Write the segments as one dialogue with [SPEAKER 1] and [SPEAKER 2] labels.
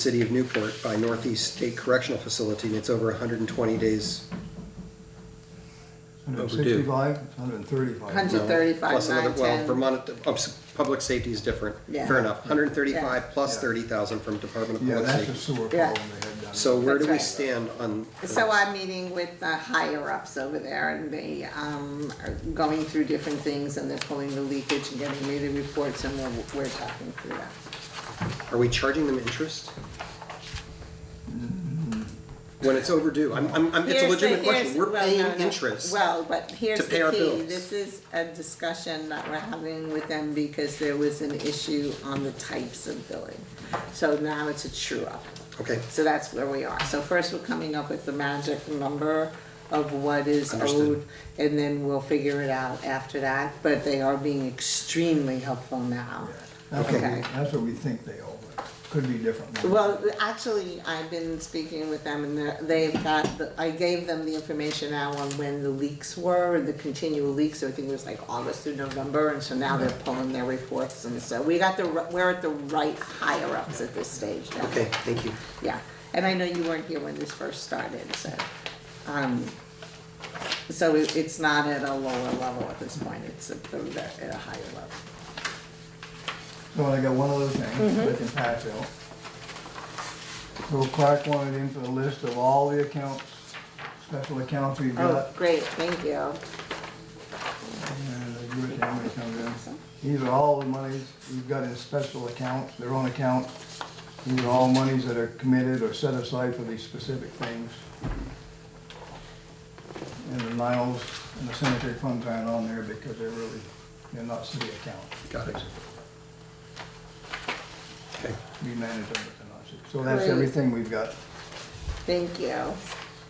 [SPEAKER 1] City of Newport by Northeast State Correctional Facility, and it's over 120 days. Overdue.
[SPEAKER 2] 165, 135.
[SPEAKER 1] no,
[SPEAKER 3] 135,
[SPEAKER 1] plus another- Well,
[SPEAKER 3] 910.
[SPEAKER 1] Vermont, uh, s- public safety is different.
[SPEAKER 3] Yeah.
[SPEAKER 1] Fair enough. 135 plus
[SPEAKER 2] Yeah.
[SPEAKER 1] 30,000 from Department of
[SPEAKER 2] Yeah,
[SPEAKER 1] Public
[SPEAKER 2] that's a
[SPEAKER 1] Safety.
[SPEAKER 2] sewer problem they
[SPEAKER 3] Yeah.
[SPEAKER 2] had done.
[SPEAKER 1] So where do we
[SPEAKER 3] That's right.
[SPEAKER 1] stand on?
[SPEAKER 3] So I'm meeting with the higher ups over there and they um are going through different things and they're pulling the leakage and getting me the reports and we're we're talking through that.
[SPEAKER 1] Are we charging them interest? When it's overdue? I'm, I'm, I'm- it's a
[SPEAKER 3] Here's the-
[SPEAKER 1] legitimate question.
[SPEAKER 3] here's-
[SPEAKER 1] We're
[SPEAKER 3] well, no,
[SPEAKER 1] paying
[SPEAKER 3] no.
[SPEAKER 1] interest.
[SPEAKER 3] Well, but here's
[SPEAKER 1] to
[SPEAKER 3] the
[SPEAKER 1] pay our
[SPEAKER 3] key,
[SPEAKER 1] bills.
[SPEAKER 3] this is a discussion that we're having with them because there was an issue on the types of billing. So now it's a true up.
[SPEAKER 1] Okay,
[SPEAKER 3] So that's where we are. So first, we're coming up with the magic number of what is owed,
[SPEAKER 1] Understood.
[SPEAKER 3] and then we'll figure it out after that. But they are being extremely helpful now.
[SPEAKER 2] That's what we-
[SPEAKER 3] Okay.
[SPEAKER 2] That's what we think they owe, but could be different.
[SPEAKER 3] Well, actually, I've been speaking with them, and they're- they've got, the- I gave them the information now on when the leaks were, and the continual leaks, so I think it was like August through November, and so now they're pulling their reports, and so we got the, r- we're at the right higher-ups at this stage now.
[SPEAKER 1] okay, thank you.
[SPEAKER 3] Yeah, and I know you weren't here when this first started, so, um, so it, it's not at a lower level at this point, it's at the, at a higher level.
[SPEAKER 2] So I got one other thing
[SPEAKER 3] Mm-hmm.
[SPEAKER 2] that can pass out. So Clark wanted in for the list of all the accounts, special accounts we've
[SPEAKER 3] Oh,
[SPEAKER 2] got.
[SPEAKER 3] great, thank you.
[SPEAKER 2] and they do it down when it comes in. These are all the monies we've got in special accounts, their own accounts. These are all monies that are committed or set aside for these specific things. And the Niles and the cemetery funds aren't on there because they're really, they're not city accounts.
[SPEAKER 1] Got it. Okay,
[SPEAKER 2] We manage them, but they're not city. So that's
[SPEAKER 3] Great.
[SPEAKER 2] everything we've got
[SPEAKER 3] Thank you.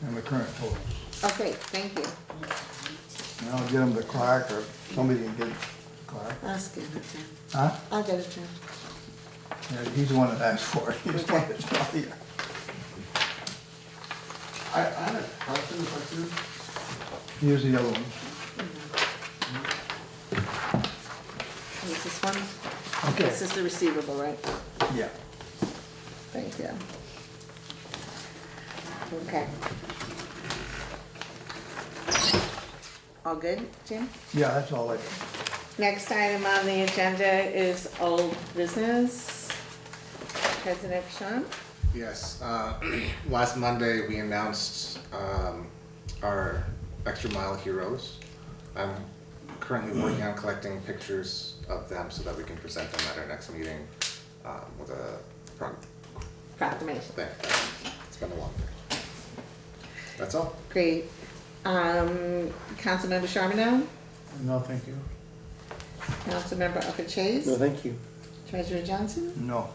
[SPEAKER 2] in the current totals.
[SPEAKER 3] Okay, thank you.
[SPEAKER 2] And I'll get them to Clark or somebody can get it to Clark.
[SPEAKER 3] I'll skip it down.
[SPEAKER 2] Huh?
[SPEAKER 3] I'll get it down.
[SPEAKER 2] Yeah, he's the one that asked for it. He's the one that's not here.
[SPEAKER 4] I, I had a question, if I could.
[SPEAKER 2] Here's the other one.
[SPEAKER 3] Is this one?
[SPEAKER 2] Okay,
[SPEAKER 3] This is the receivable, right?
[SPEAKER 2] yeah.
[SPEAKER 3] Thank you. Okay. All good, Jim?
[SPEAKER 2] Yeah, that's all I,
[SPEAKER 3] Next item on the agenda is old business. President Sean?
[SPEAKER 4] Yes, uh, last Monday, we announced, um, our extra mile heroes. I'm currently working on collecting pictures of them so that we can present them at our next meeting, um, with a, pro-
[SPEAKER 3] Proclamation.
[SPEAKER 4] thing. it's been a long day. That's all.
[SPEAKER 3] Great. Um, Councilmember Charbonneau?
[SPEAKER 4] No, thank you.
[SPEAKER 3] Councilmember Upper Chase?
[SPEAKER 1] no, thank you.
[SPEAKER 3] Treasurer Johnson?
[SPEAKER 2] no.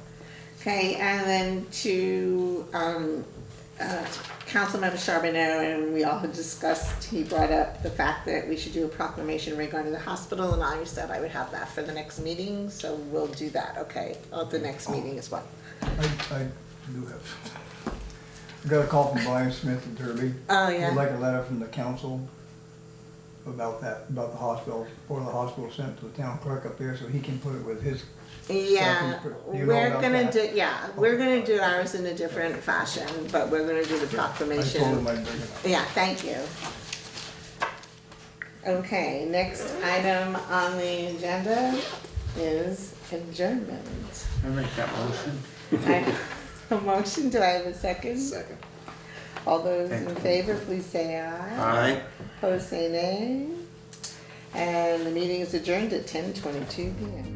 [SPEAKER 3] Okay, and then to, um, uh, Councilmember Charbonneau, and we all had discussed, he brought up the fact that we should do a proclamation regarding the hospital, and I said I would have that for the next meeting, so we'll do that, okay, at the next meeting as well.
[SPEAKER 2] I, I do have. I got a call from Brian Smith and Derby.
[SPEAKER 3] Oh, yeah.
[SPEAKER 2] We'd like a letter from the council about that, about the hospital, or the hospital sent to the town clerk up there so he can put it with his.
[SPEAKER 3] Yeah,
[SPEAKER 2] Second, you know
[SPEAKER 3] we're
[SPEAKER 2] about
[SPEAKER 3] gonna
[SPEAKER 2] that? Oh.
[SPEAKER 3] do, yeah, we're gonna do ours in a different fashion, but we're gonna do the
[SPEAKER 2] I told him
[SPEAKER 3] proclamation.
[SPEAKER 2] I'd bring it up.
[SPEAKER 3] Yeah, thank you. Okay, next item on the agenda is adjournment.
[SPEAKER 5] I make that motion.
[SPEAKER 3] I- A motion, do I have a second?
[SPEAKER 4] Second.
[SPEAKER 3] All those in favor, please say aye.
[SPEAKER 1] Aye.
[SPEAKER 3] Opposed, say nay. And the meeting is adjourned at ten twenty-two P M.